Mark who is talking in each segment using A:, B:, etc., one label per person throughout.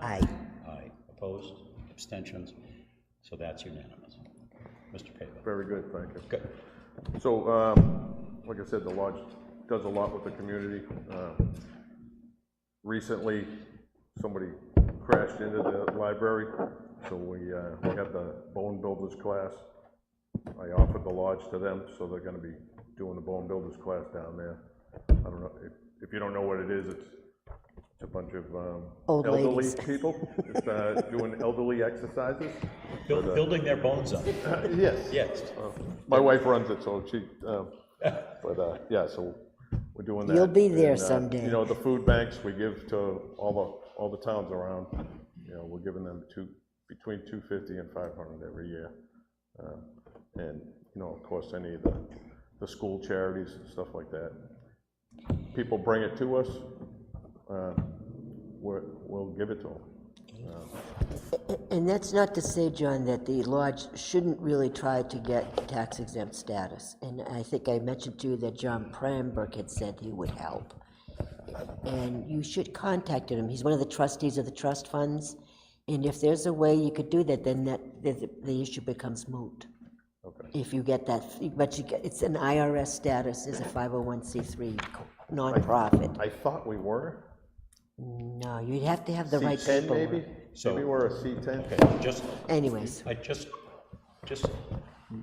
A: Aye.
B: Aye. Opposed? Abstentions? So that's unanimous. Mr. Pava.
C: Very good, thank you.
B: Good.
C: So, um, like I said, the lodge does a lot with the community. Uh, Recently, somebody crashed into the library, so we, uh, we have the bone builders class. I offered the lodge to them, so they're gonna be doing the bone builders class down there. I don't know, if, if you don't know what it is, it's, it's a bunch of, um,
A: Old
C: elderly
A: ladies.
C: people, just, uh, doing elderly exercises.
B: Buil- Building their bones up. Oh.
C: Yes.
B: Yes.
C: My wife runs it, so she, um, but, uh, yeah, so we're doing that.
A: You'll be there
C: And, uh,
A: someday.
C: You know, the food banks we give to all the, all the towns around, you know, we're giving them two, between 250 and 500 every year. Um, And, you know, of course, any of the, the school charities and stuff like that. People bring it to us, uh, we're, we'll give it to them.
A: And that's not to say, John, that the lodge shouldn't really try to get tax exempt status. And I think I mentioned to you that John Pramberg had said he would help. And you should contact him. He's one of the trustees of the trust funds. And if there's a way you could do that, then that, the, the issue becomes moot. If you get that, but you get, it's an IRS status as a 501c3 nonprofit.
C: I thought we were
A: No, you'd have to have the right
C: C10
A: people.
C: maybe?
B: So-
C: Maybe we're a C10?
B: Okay, just,
A: Anyways,
B: I just, just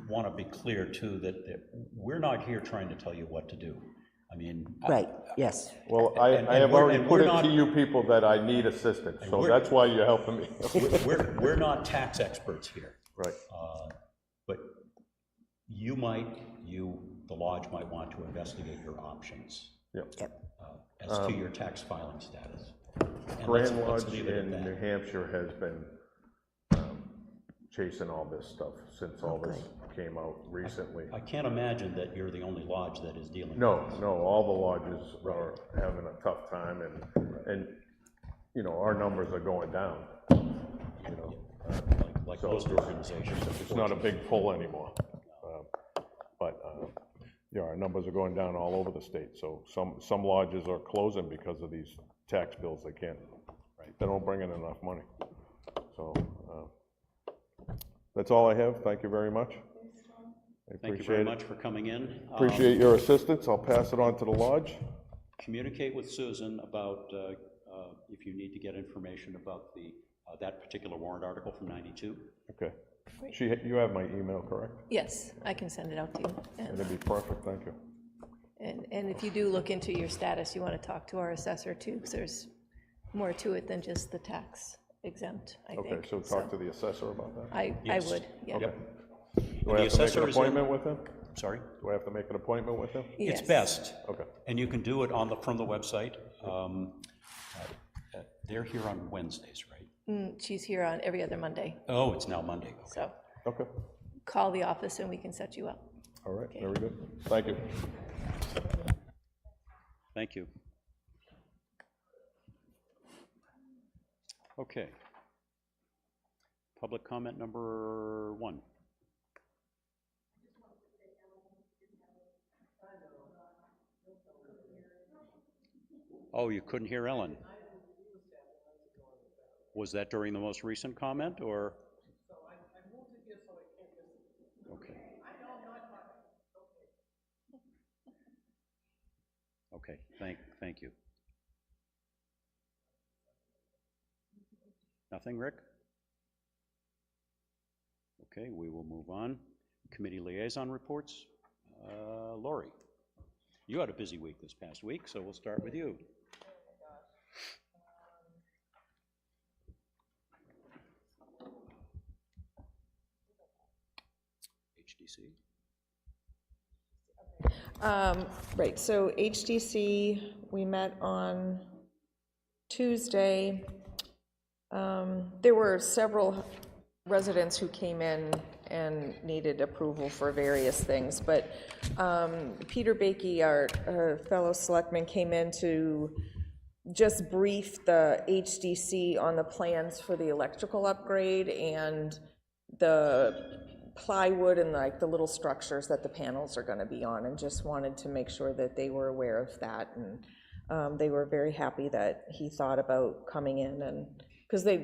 B: want to be clear too, that, that we're not here trying to tell you what to do. I mean. I-
A: right, yes.
C: Well, I,
B: And-
C: I
B: and
C: have
B: we're-
C: already
B: and
C: put
B: we're
C: it
B: not-
C: to you people that I need assistance, so
B: we're-
C: that's why you're helping me.
B: We're- We're, we're not tax experts here.
C: Right.
B: Uh, But you might, you, the lodge might want to investigate your options
C: Yep.
A: Yep.
B: uh, as to your tax filing status. And let's-
C: Grand
B: let's
C: Lodge
B: leave it at
C: in
B: that.
C: New Hampshire has been um, chasing all this stuff since all this came out recently.
B: I can't imagine that you're the only lodge that is dealing.
C: No, no, all the lodges are having a tough time, and, and, you know, our numbers are going down. You know,
B: Like, uh, like most organizations.
C: it's not a big pull anymore. Um, But, uh, yeah, our numbers are going down all over the state, so some, some lodges are closing because of these tax bills they can't, they don't bring in enough money. So, uh, that's all I have, thank you very much. I
B: Thank you very
C: appreciate it.
B: much for coming in. Um,
C: Appreciate your assistance, I'll pass it on to the lodge.
B: Communicate with Susan about uh, uh, if you need to get information about the, uh, that particular warrant article from 92.
C: Okay. She, you have my email, correct?
D: Yes, I can send it out to you. And-
C: That'd be perfect, thank you.
D: And, and if you do look into your status, you want to talk to our assessor too, because there's more to it than just the tax exempt, I think.
C: Okay, so talk to the assessor about that.
D: I, I
B: Yes.
D: would, yeah.
B: Yep.
C: Do I have to make
B: assessor
C: an
B: is in-
C: appointment with him?
B: Sorry?
C: Do I have to make an appointment with him?
B: It's
D: Yes.
B: best.
C: Okay.
B: And you can do it on the, from the website. Um, uh, uh, They're here on Wednesdays, right?
D: Mm, She's here on every other Monday,
B: Oh, it's now Monday.
D: so
C: Okay,
D: call the office and we can set you up.
C: all right, very good. Thank you.
B: Thank you. Okay. Public comment number one. Oh, you couldn't hear Ellen? Was that during the most recent comment, or? Okay. Okay, thank, thank you. Nothing, Rick? Okay, we will move on. Committee liaison reports. Uh, Lori, you had a busy week this past week, so we'll start with you. HDC?
E: Um, Right, so HDC, we met on Tuesday. Um, There were several residents who came in and needed approval for various things, but um, Peter Baiki, our uh, fellow selectman, came in to just brief the HDC on the plans for the electrical upgrade and the plywood and like the little structures that the panels are gonna be on, and just wanted to make sure that they were aware of that, and um, they were very happy that he thought about coming in and because they,